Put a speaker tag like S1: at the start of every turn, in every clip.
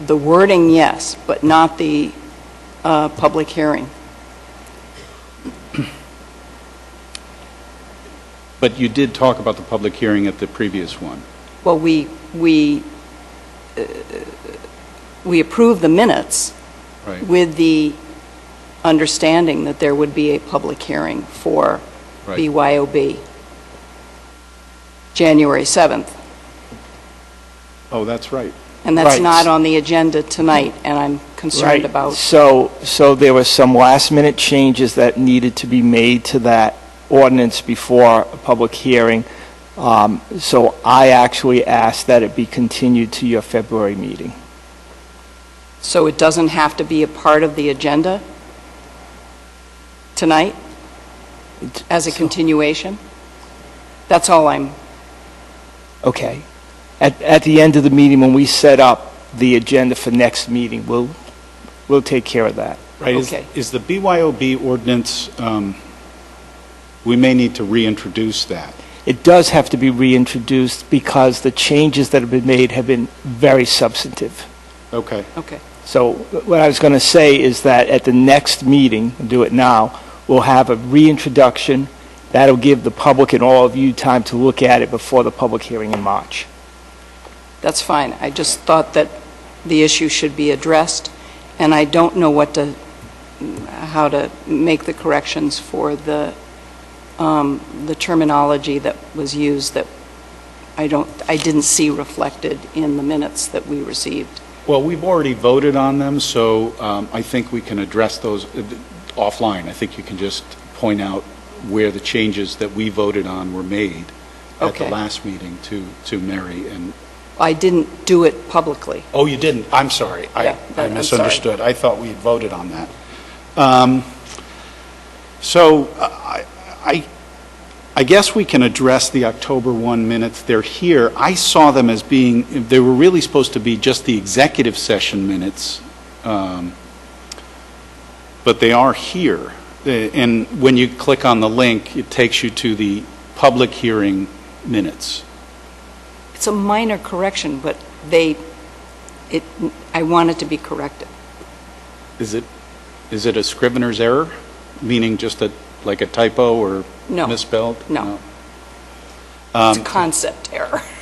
S1: the wording, yes, but not the uh, public hearing.
S2: But you did talk about the public hearing at the previous one.
S1: Well, we, we, uh, we approved the minutes
S2: Right.
S1: with the understanding that there would be a public hearing for
S2: Right.
S1: BYOB, January 7th.
S2: Oh, that's right.
S1: And that's
S3: Right.
S1: not on the agenda tonight, and I'm concerned
S3: Right.
S1: about,
S3: So, so there were some last-minute changes that needed to be made to that ordinance before a public hearing. Um, So I actually asked that it be continued to your February meeting.
S1: so it doesn't have to be a part of the agenda tonight as a continuation? That's all I'm,
S3: Okay. At, at the end of the meeting, when we set up the agenda for next meeting, we'll, we'll take care of that.
S2: Right, is-
S1: Okay.
S2: is the BYOB ordinance, um, we may need to reintroduce that.
S3: It does have to be reintroduced because the changes that have been made have been very substantive.
S2: Okay,
S1: okay.
S3: So what I was going to say is that at the next meeting, I'll do it now, we'll have a reintroduction. That'll give the public and all of you time to look at it before the public hearing in March.
S1: That's fine. I just thought that the issue should be addressed, and I don't know what to, how to make the corrections for the, um, the terminology that was used that I don't, I didn't see reflected in the minutes that we received.
S2: well, we've already voted on them, so um, I think we can address those uh, offline. I think you can just point out where the changes that we voted on were made at the
S1: Okay.
S2: last meeting to, to Mary and,
S1: I didn't do it publicly.
S2: oh, you didn't, I'm sorry.
S1: Yeah,
S2: I
S1: I'm
S2: I
S1: sorry.
S2: misunderstood. I thought we had voted on that. Um, So uh, I, I- I guess we can address the October 1 minutes. They're here. I saw them as being, they were really supposed to be just the executive session minutes, um, but they are here. They- And when you click on the link, it takes you to the public hearing minutes.
S1: It's a minor correction, but they, it, I want it to be corrected.
S2: Is it, is it a scrivener's error? Meaning just a, like a typo or
S1: No.
S2: misspelled?
S1: No. It's a concept error.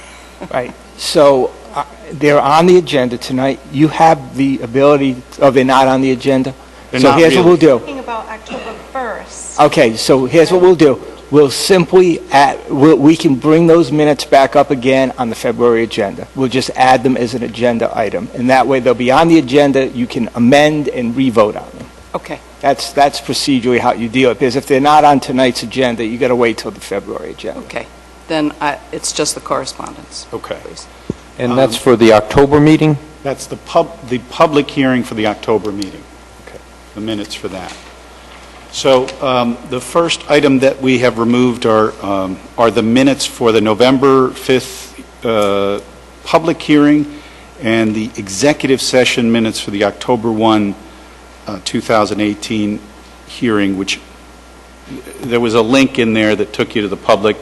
S3: Right. So uh, they're on the agenda tonight. You have the ability, oh, they're not on the agenda?
S2: They're
S3: So
S2: not
S3: here's what we'll
S2: really.
S3: do.
S4: Talking about October 1st.
S3: Okay, so here's what we'll do. We'll simply add, we'll- we can bring those minutes back up again on the February agenda. We'll just add them as an agenda item, and that way they'll be on the agenda, you can amend and re-vote on them.
S1: Okay,
S3: That's, that's procedurally how you deal it, because if they're not on tonight's agenda, you got to wait till the February agenda.
S1: okay. Then I, it's just the correspondence.
S2: Okay.
S1: please.
S5: And that's for the October meeting?
S2: That's the pub, the public hearing for the October meeting.
S3: Okay.
S2: The minutes for that. So um, the first item that we have removed are, um, are the minutes for the November 5th uh, public hearing and the executive session minutes for the October 1, uh, 2018 hearing, which, there was a link in there that took you to the public.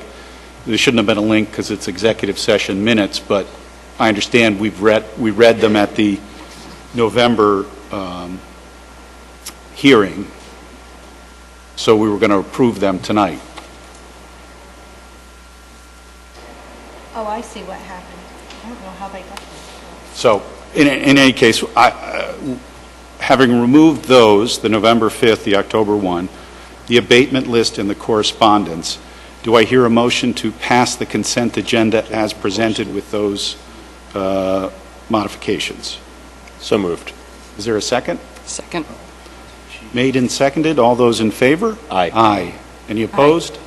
S2: There shouldn't have been a link because it's executive session minutes, but I understand we've read, we read them at the November um, hearing, so we were going to approve them tonight.
S4: Oh, I see what happened. I don't know how they got this.
S2: So, in, in any case, I, uh, having removed those, the November 5th, the October 1, the abatement list and the correspondence, do I hear a motion to pass the consent agenda as presented with those uh, modifications?
S5: So moved.
S2: Is there a second?
S1: Second?
S2: Made and seconded, all those in favor?
S5: Aye.
S2: Aye. Any opposed?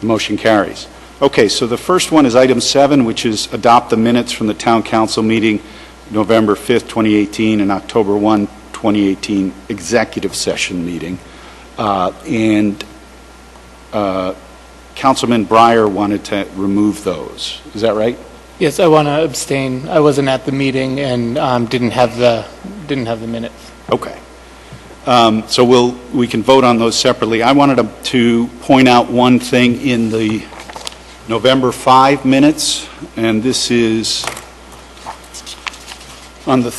S2: The motion carries. Okay, so the first one is item seven, which is adopt the minutes from the town council meeting November 5th, 2018, and October 1, 2018 executive session meeting. Uh, And uh, Councilman Breyer wanted to remove those. Is that right?
S6: Yes, I want to abstain. I wasn't at the meeting and um, didn't have the, didn't have the minutes.
S2: Okay. Um, So we'll, we can vote on those separately. I wanted to- to point out one thing in the November 5 minutes, and this is on the